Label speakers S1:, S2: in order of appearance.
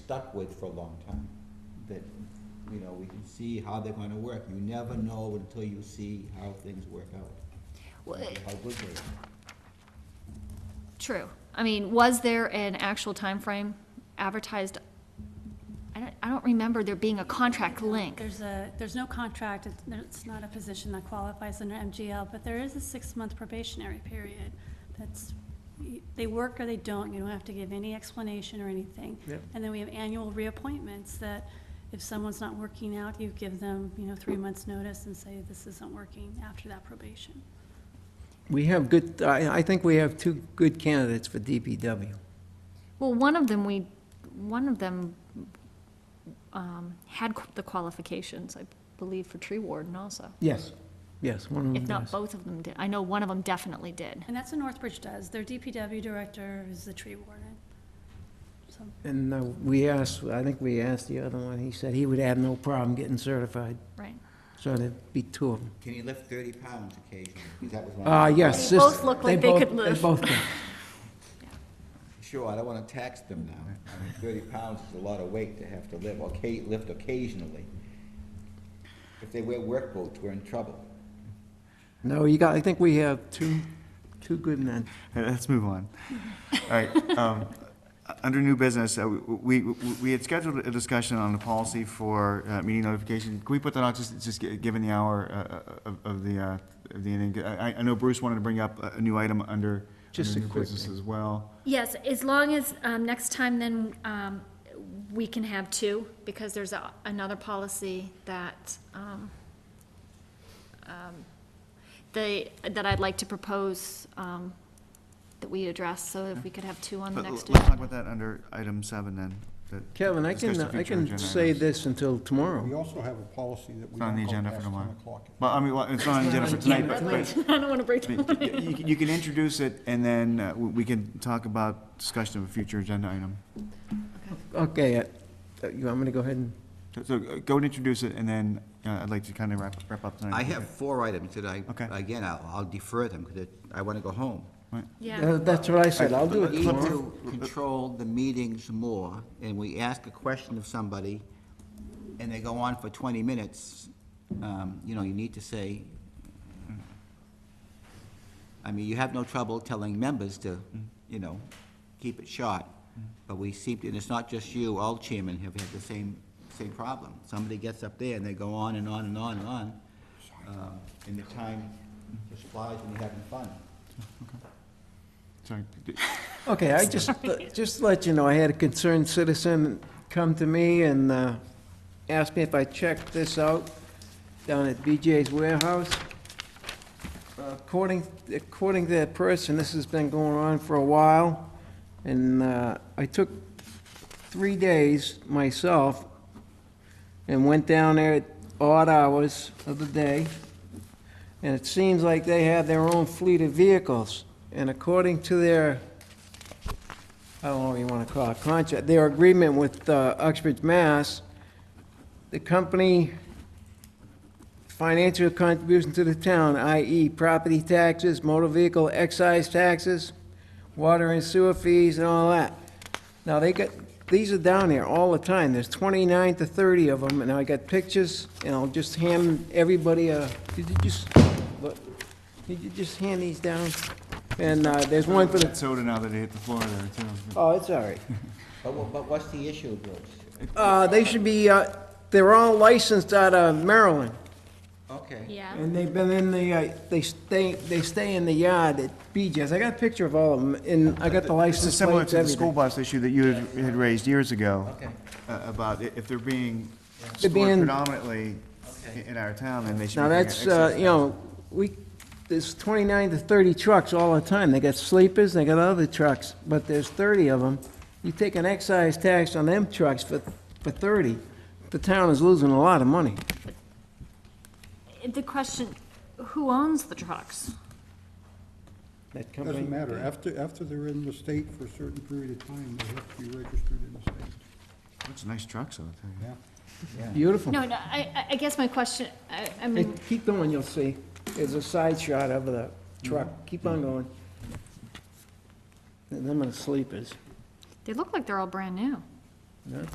S1: stuck with for a long time. That, you know, we can see how they're gonna work. You never know until you see how things work out,
S2: Well, eh,
S1: how good they are.
S2: True. I mean, was there an actual time frame advertised? I don't, I don't remember there being a contract link.
S3: There's a, there's no contract, it's- it's not a position that qualifies under MGL, but there is a six-month probationary period. That's, they work or they don't, you don't have to give any explanation or anything.
S4: Yep.
S3: And then we have annual reappointments that if someone's not working out, you give them, you know, three months' notice and say, this isn't working after that probation.
S4: We have good, I, I think we have two good candidates for DPW.
S2: Well, one of them, we, one of them um, had qu- the qualifications, I believe, for tree warden also.
S4: Yes. Yes, one of them
S2: If not,
S4: does.
S2: both of them did. I know one of them definitely did.
S3: And that's what Northbridge does. Their DPW director is the tree warden. So,
S4: And uh, we asked, I think we asked the other one, he said he would have no problem getting certified,
S2: Right.
S4: so there'd be two of them.
S1: Can you lift thirty pounds occasionally? 'Cause that was one. of
S4: Uh,
S1: the-
S4: yes.
S2: They
S4: this-
S2: both look like they
S4: both-
S2: could live.
S4: They both do.
S1: Sure, I don't wanna tax them now. I mean, thirty pounds is a lot of weight to have to lift, okay, lift occasionally. If they wear work boots, we're in trouble.
S4: No, you got, I think we have two, two good men.
S5: Uh, Let's move on. All right. um, uh, Under new business, uh, we, we we had scheduled a discussion on the policy for uh, meeting notification. Can we put that on, just, just gi- given the hour uh, of of the, uh, of the ending? I, I know Bruce wanted to bring up a a new item under,
S4: Just
S5: under
S4: a
S5: new
S4: quick
S5: business
S4: thing.
S5: as well.
S2: Yes, as long as, um, next time then, um, we can have two, because there's a, another policy that, um, um, the, that I'd like to propose, um, that we address, so if we could have two on the
S5: But l-
S2: next
S5: let's talk
S2: agenda.
S5: about that under item seven then. that-
S4: Kevin, I can,
S5: discuss the
S4: I
S5: future
S4: can
S5: agenda
S4: say
S5: items.
S4: this until
S6: We
S4: tomorrow.
S6: also have a policy that we
S5: Oh. It's not on the
S6: don't go
S5: agenda for
S6: past 10
S5: tomorrow.
S6: o'clock.
S5: Well, I mean, well, it's not on the agenda for tonight, but, but
S2: I don't wanna break
S5: I mean,
S2: the
S5: y- You can- you can introduce it, and then uh, we we can talk about discussion of a future agenda item.
S4: Okay, uh, you want me to go ahead and?
S5: So- So uh, go and introduce it, and then uh, I'd like to kind of wrap wrap up tonight.
S1: I have four items that I,
S5: Okay.
S1: again, I'll I'll defer them, because I want to go home.
S2: Yeah,
S4: Uh, That's what I said, I'll do it
S1: We need
S4: tomorrow.
S1: to control the meetings more, and we ask a question of somebody, and they go on for twenty minutes, um, you know, you need to say, I mean, you have no trouble telling members to, you know, keep it short, but we seem, to- and it's not just you, all chairmen have had the same, same problem. Somebody gets up there and they go on and on and on and on, um, and the time just flies when you're having fun.
S5: Sorry. D-
S4: Okay, I just, just to let you know, I had a concerned citizen come to me and uh, ask me if I checked this out down at BJ's Warehouse. According, according to that person, this has been going on for a while, and uh, I took three days myself and went down there at odd hours of the day, and it seems like they have their own fleet of vehicles. And according to their I don't know what you want to call it, contract, their agreement with uh, Uxbridge, Mass, the company financial contribution to the town, i.e. property taxes, motor vehicle excise taxes, water and sewer fees and all that. Now, they got, these are down there all the time, there's 29 to 30 of them, and I got pictures, and I'll just hand everybody a, did you just, look, did you just hand these down? And uh, there's one for
S5: That
S4: the,
S5: soda now that it hit the floor there, too.
S4: oh, it's all right.
S1: But, wha- but what's the issue, Bruce?
S4: Uh, they should be, uh, they're all licensed out of Maryland,
S1: Okay.
S2: yeah.
S4: and they've been in the, uh, they stay, they stay in the yard at BJ's. I got a picture of all of them, and I got the
S5: This is
S4: license
S5: similar
S4: plates,
S5: to the school
S4: everything.
S5: bus issue that you had had raised years ago.
S1: Okay.
S5: uh, About i- if they're being stored
S4: being-
S5: predominantly i- in our town, then they should be.
S4: Now,
S5: paying
S4: that's, uh,
S5: excess
S4: you know, we, there's twenty-nine to thirty trucks all the time. They got sleepers, they got other trucks, but there's thirty of them. You take an excise tax on them trucks for, for thirty, the town is losing a lot of money.
S2: The question, who owns the trucks?
S4: That company-
S6: Doesn't matter, after, after they're in the state for a certain period of time, they have to be registered in the state,
S5: tax. Bunch of nice trucks, I'll tell you.
S6: yeah.
S4: Beautiful.
S2: No, no, I, I- I guess my question, I, I
S4: Hey,
S2: mean,
S4: keep going, you'll see. There's a side shot of the truck. Keep on going. And Them and the sleepers.
S2: they look like they're all brand new.